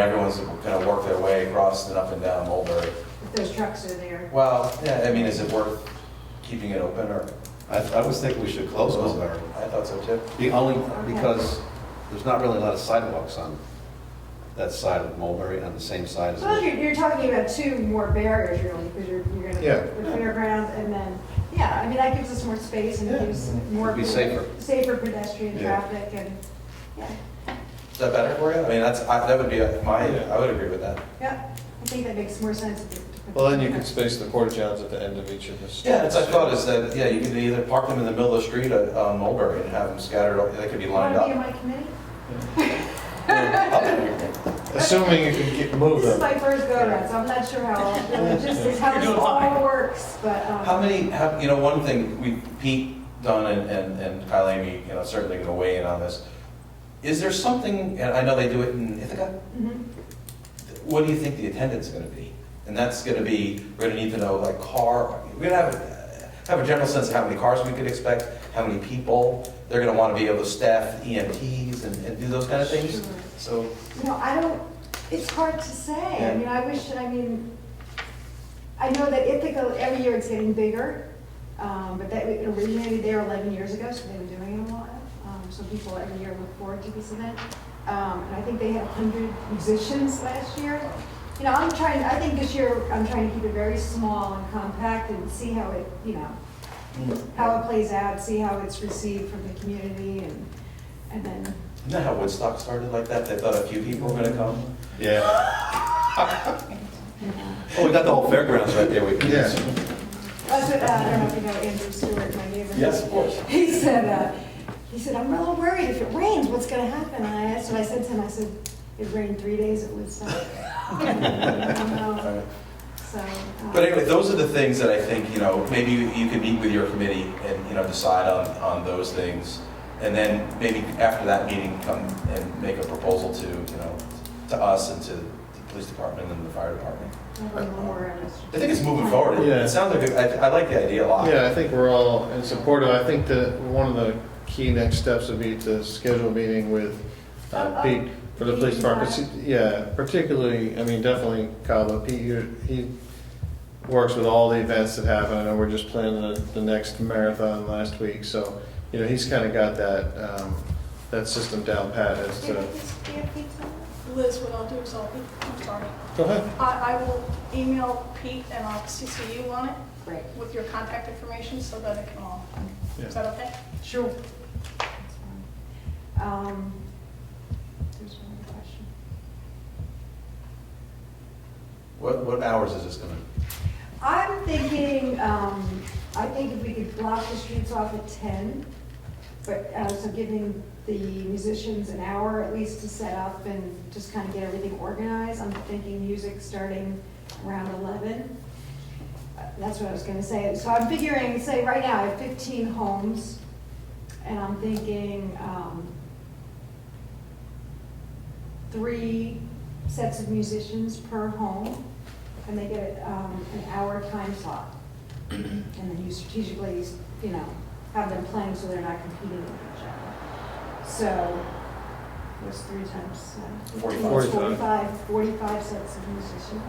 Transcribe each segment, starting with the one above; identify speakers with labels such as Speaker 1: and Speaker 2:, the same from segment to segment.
Speaker 1: Everyone's gonna work their way across and up and down Mulberry.
Speaker 2: if those trucks are there.
Speaker 1: Well, yeah, I mean, is it worth keeping it open or?
Speaker 3: I, I was thinking we should close Mulberry.
Speaker 1: I thought so too.
Speaker 3: The only, because there's not really a lot of sidewalks on that side of Mulberry, on the same side as.
Speaker 2: Well, you're, you're talking about two more barriers really, because you're, you're gonna,
Speaker 3: Yeah.
Speaker 2: the fairgrounds and then, yeah, I mean, that gives us more space and
Speaker 3: Yeah.
Speaker 2: gives more.
Speaker 3: Be safer.
Speaker 2: Safer pedestrian
Speaker 3: Yeah.
Speaker 2: traffic and, yeah,
Speaker 1: Is that better for you? I mean, that's, I- that would be a- my, I would agree with that.
Speaker 2: yeah, I think that makes more sense. to- to put-
Speaker 4: Well, then you could space the porta johns at the end of each of the streets.
Speaker 1: Yeah, it's, I thought is that, yeah, you could either park them in the middle of the street at uh, Mulberry and have them scattered, they could be
Speaker 2: You
Speaker 1: lined
Speaker 2: wanna be in
Speaker 1: up.
Speaker 2: my committee?
Speaker 4: Assuming you can keep, move
Speaker 2: This is
Speaker 4: them.
Speaker 2: my first go around, so I'm not sure how, the logistics, how
Speaker 1: You're
Speaker 2: this
Speaker 1: doing fine.
Speaker 2: all works, but, um.
Speaker 1: How many, how- you know, one thing, we, Pete Dunn and- and, and Kyle Amy, you know, certainly gonna weigh in on this. Is there something, and I know they do it in Ithaca,
Speaker 2: mhm.
Speaker 1: what do you think the attendance is gonna be? And that's gonna be, we're gonna need to know, like, car, we're gonna have, a- have a general sense of how many cars we could expect, how many people, they're gonna wanna be able to staff EMTs and, and do those kind of things, so.
Speaker 2: You know, I don't, it's hard to say.
Speaker 1: Yeah.
Speaker 2: I mean, I wish, I mean, I know that Ithaca, every year it's getting bigger, um, but that it originated there 11 years ago, so they've been doing it a while. Um, So people every year look forward to this event. Um, And I think they had 100 musicians last year. You know, I'm trying, I think this year, I'm trying to keep it very small and compact and see how it, you know, how it plays out, see how it's received from the community and, and then
Speaker 1: Isn't that how Woodstock started like that? They thought a few people were gonna come?
Speaker 3: Yeah. Oh, we got the whole fairgrounds right there. We can-
Speaker 4: Yeah.
Speaker 2: That's what, uh, I don't know if you know Andrew Stewart, my neighbor.
Speaker 1: Yes, of course.
Speaker 2: He said, uh, he said, I'm a little worried if it rains, what's gonna happen? And I asked, and I said to him, I said, it rained three days at Woodstock. I don't know. So. uh,
Speaker 1: But anyway, those are the things that I think, you know, maybe you you can meet with your committee and, you know, decide on, on those things. And then maybe after that meeting, come and make a proposal to, you know, to us and to the police department and the fire department.
Speaker 2: I don't know where I was.
Speaker 1: I think it's moving forward. It-
Speaker 4: Yeah.
Speaker 1: It sounds like, a- I, I like the idea a lot.
Speaker 4: Yeah, I think we're all in support of, I think that one of the key next steps would be to schedule a meeting with uh, Pete for the police department. See- Yeah, particularly, I mean, definitely Kyle, but Pete, you- he works with all the events that happen. I know we're just planning the, the next marathon last week, so, you know, he's kind of got that, um, that system down pat as
Speaker 5: Do you
Speaker 4: to.
Speaker 5: have these- do you have these on? Liz, what I'll do is I'll, be- I'm sorry.
Speaker 4: Go ahead.
Speaker 5: I, I will email Pete and I'll CC you on it
Speaker 2: Great.
Speaker 5: with your contact information so that it can all, is
Speaker 4: Yeah.
Speaker 5: that okay?
Speaker 2: Sure. Um, There's one more question.
Speaker 1: What, what hours is this gonna?
Speaker 2: I'm thinking, um, I think if we could block the streets off at ten, but, uh, so giving the musicians an hour at least to set up and just kind of get everything organized. I'm thinking music starting around eleven. Uh, That's what I was gonna say. So I'm figuring, say, right now, I have fifteen homes, and I'm thinking, um, three sets of musicians per home, and they get um, an hour time slot. And then you strategically, you know, have them playing so they're not competing with each other. So, what's three times? uh, 15, it's
Speaker 4: 45.
Speaker 2: 45, 45 sets of musicians.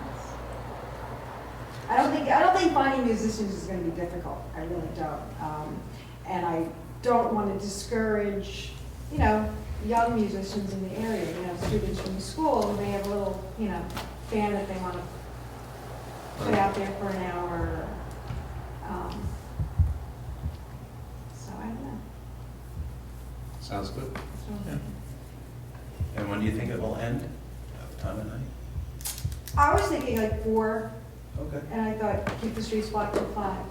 Speaker 2: I don't think, I don't think finding musicians is gonna be difficult, I really don't. Um, And I don't wanna discourage, you know, young musicians in the area, you know, students from the school, and they have a little, you know, band that they wanna put out there for an hour. um, So I don't know.
Speaker 3: Sounds good.
Speaker 2: So-
Speaker 1: And when do you think it will end? Time of night?
Speaker 2: I was thinking like four,
Speaker 1: Okay, okay.
Speaker 2: and I thought keep the streets blocked till five,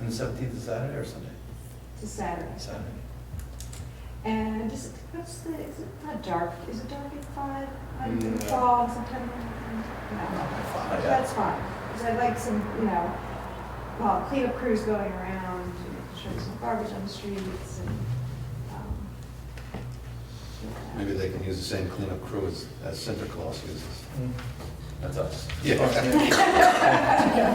Speaker 1: And the seventeenth is Saturday or Sunday?
Speaker 2: to Saturday.
Speaker 1: Saturday.
Speaker 2: And just, what's the, is it not dark, is it dark at five? I'm in
Speaker 4: No.
Speaker 2: fog sometime. No,
Speaker 1: Not
Speaker 2: So
Speaker 1: yet.
Speaker 2: that's fine, because I'd like some, you know, well, cleanup crews going around, making sure there's no garbage on the streets and, um. yeah.
Speaker 3: Maybe they can use the same cleanup crew as, as Santa Claus uses.
Speaker 1: That's us.
Speaker 3: Yeah.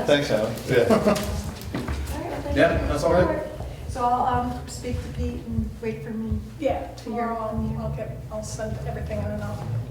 Speaker 4: Thanks, Alan.
Speaker 3: Yeah.
Speaker 2: All right, well, thank
Speaker 1: Yeah,
Speaker 2: you.
Speaker 1: that's all right.
Speaker 2: So I'll, um, speak to Pete and wait for me.
Speaker 5: Yeah,
Speaker 2: To your-
Speaker 5: tomorrow I'll, I'll get, I'll send everything in and I'll